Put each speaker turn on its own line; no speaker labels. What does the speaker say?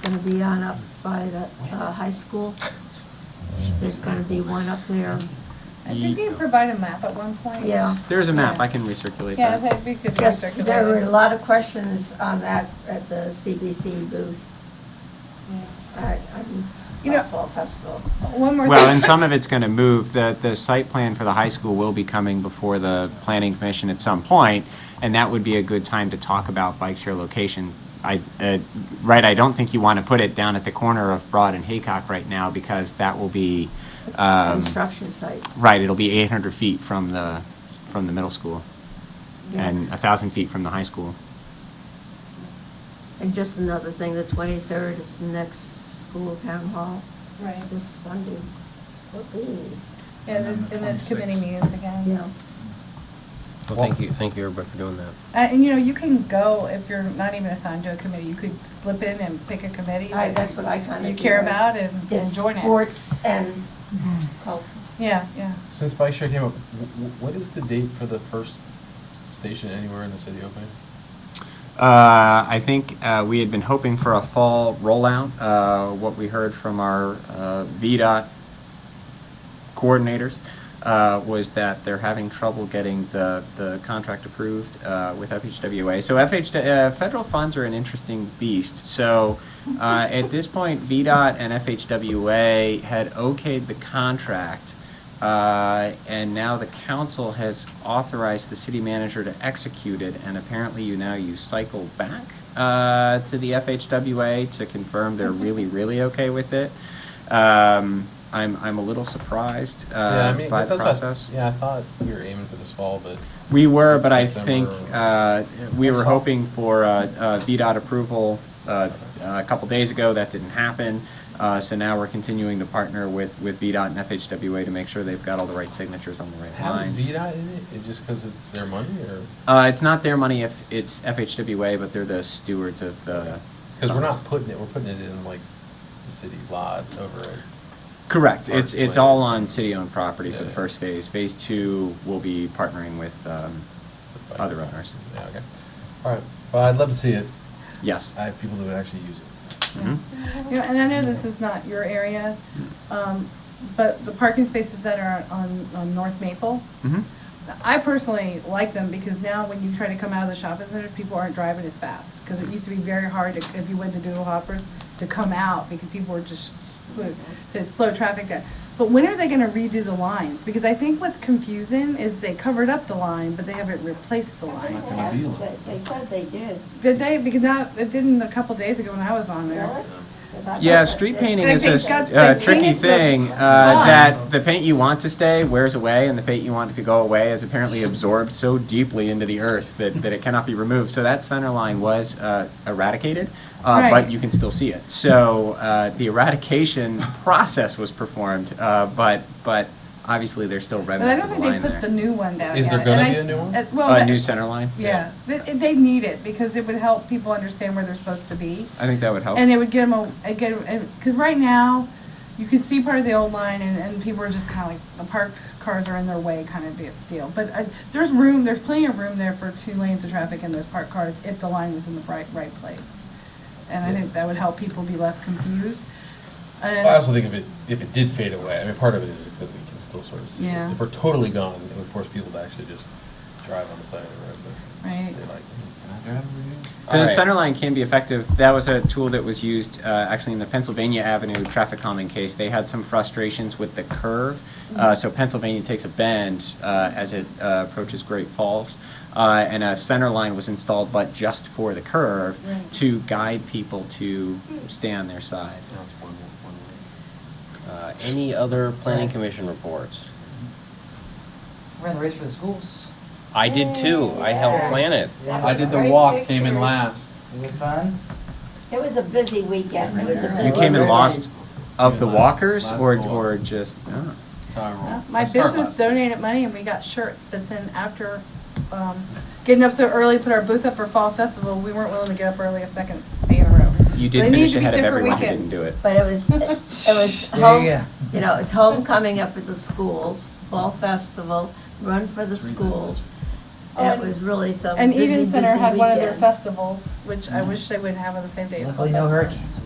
gonna be on up by the, uh, high school. There's gonna be one up there,
I think
Ye-
you provide a map at one point.
yeah.
There's a map, I can recirculate
Yeah,
that.
that'd be good. to
Yes,
circulate.
there were a lot of questions on that at the CBC booth at, um,
You know-
at Fall Festival.
One more.
Well,
thing.
and some of it's going to move, the, the site plan for the high school will be coming before the planning commission at some point, and that would be a good time to talk about bike share location. I, uh, right, I don't think you want to put it down at the corner of Broad and Haycock right now, because that will be, um,
Construction site.
right, it'll be 800 feet from the, from the middle school,
yeah.
and 1,000 feet from the high school.
And just another thing, the twenty-third is the next school town hall.
Right.
It's this Sunday. Whoopee.
Yeah, that's- and that's committee
26.
meetings again.
Yeah.
Well, thank you, thank you, everybody, for doing that.
Uh, And, you know, you can go, if you're not even assigned to a committee, you could slip in and pick a committee.
I,
that
that's what I kinda do.
You care
I
about and and
did
join it. Mm-hmm.
Sports and culture.
Yeah, yeah.
Since bike share came up, w- w- what is the date for the first s- station anywhere in the city opening?
Uh, I think uh, we had been hoping for a fall rollout. Uh, What we heard from our uh, VDOT coordinators uh, was that they're having trouble getting the, the contract approved uh, with FHWA. So FH, uh, federal funds are an interesting beast. So uh, at this point, VDOT and FHWA had okayed the contract. Uh, and now the council has authorized the city manager to execute it, and apparently you now you cycle back uh, to the FHWA to confirm they're really, really okay with it. Um, I'm, I'm a little surprised uh,
yeah, I mean, I
by
guess
the
that's not-
process.
yeah, I thought we were aiming for this fall, but
We were, but I think
September.
uh, we were
Next fall.
hoping for uh, uh, VDOT approval uh, a couple days ago. That didn't happen. Uh, So now we're continuing to partner with, with VDOT and FHWA to make sure they've got all the right signatures on the right
how is
lines.
VDOT in it? It just because it's their money, or
Uh, it's not their money if it's FHWA, but they're the stewards of the.
because we're not
funds.
putting it, we're putting it in like the city lot over. at-
Correct.
Park
It's, it's all
place.
on city-owned property for the
Yeah.
first phase. Phase two will be partnering with, um,
at
Other owners.
Yeah. Okay. All right. Well, I'd love to see it.
yes.
I have people that would actually use it.
Mhm.
You know, and I know this is not your area, um, but the parking spaces that are on, on North Maple,
Mhm.
I personally like them because now when you try to come out of the shopping center, people aren't driving as fast. Because it used to be very hard to, if you went to Doodle Hoppers to come out because people were just slow, it's slow traffic. there. But when are they going to redo the lines? Because I think what's confusing is they covered up the line, but they haven't replaced the line.
gonna be like
They said they did.
Did they? Because not, it didn't a couple days ago when I was on there.
Really? 'Cause I
Yeah,
thought that
street
they-
painting
They
is a
just got-
s-
they
uh,
painted
tricky
the
thing, uh,
lines.
that the paint you want to stay wears away, and the paint you want to go away is apparently absorbed so deeply into the earth that, that it cannot be removed. So that center line was uh, eradicated, uh,
Right.
but you can still see it. So uh, the eradication process was performed, uh, but, but obviously there's still
But I
remnants
don't
of the
think they
line
put the
there.
new one down
Is there
yet,
gonna
and I-
be a new one?
uh, Well,
A new
that-
center line?
yeah, they, they need it because it would help people understand where they're supposed to be.
I think that would help.
And it would get them, a get, because right now, you can see part of the old line and, and people are just kind of like, the parked cars are in their way kind of de- deal. But I, there's room, there's plenty of room there for two lanes of traffic and those parked cars if the line was in the right, right place. And I
Yeah.
think that would help people be less confused. And-
I also think if it if it did fade away, I mean, part of it is because we can still sort of see. it.
Yeah.
If we're totally gone, it would force people to actually just drive on the side of the road. But
Right.
They're like, "Hmm, can I drive over here?"
The
All right.
center line can be effective. That was a tool that was used uh, actually in the Pennsylvania Avenue traffic calming case. They had some frustrations with the curve. Uh, so Pennsylvania takes a bend uh, as it uh, approaches Great Falls. Uh, and a center line was installed, but just for the curve
Right.
to guide people to stay on their side.
Now it's one, one way. Uh, any other planning commission reports?
Ran the race for the schools.
I did too, I helped plan it.
Yeah.
I did the
Great
walk, came in
pictures.
last.
It was fun.
It was a busy weekend. It was a busy.
You came in
and
lost of the
Yeah,
walkers
last
or,
walk.
or just, oh.
That's how I roll.
uh, My
I start
business
last.
donated money and we got shirts, but then after, um, getting up so early, put our booth up for Fall Festival, we weren't willing to get up early a second day in a row.
you
So
did
they need
finish
to be
ahead of
different
everyone who didn't
weekends.
do it.
But it was, it was home, you know, it's homecoming up at the schools, fall festival, run for the schools.
Oh,
It
and-
was really some
And
busy, busy
Eden Center had one of their
weekend. Mm.
festivals, which I wish they would have on the same day as Fall
Luckily,
Festival.
no hurricanes.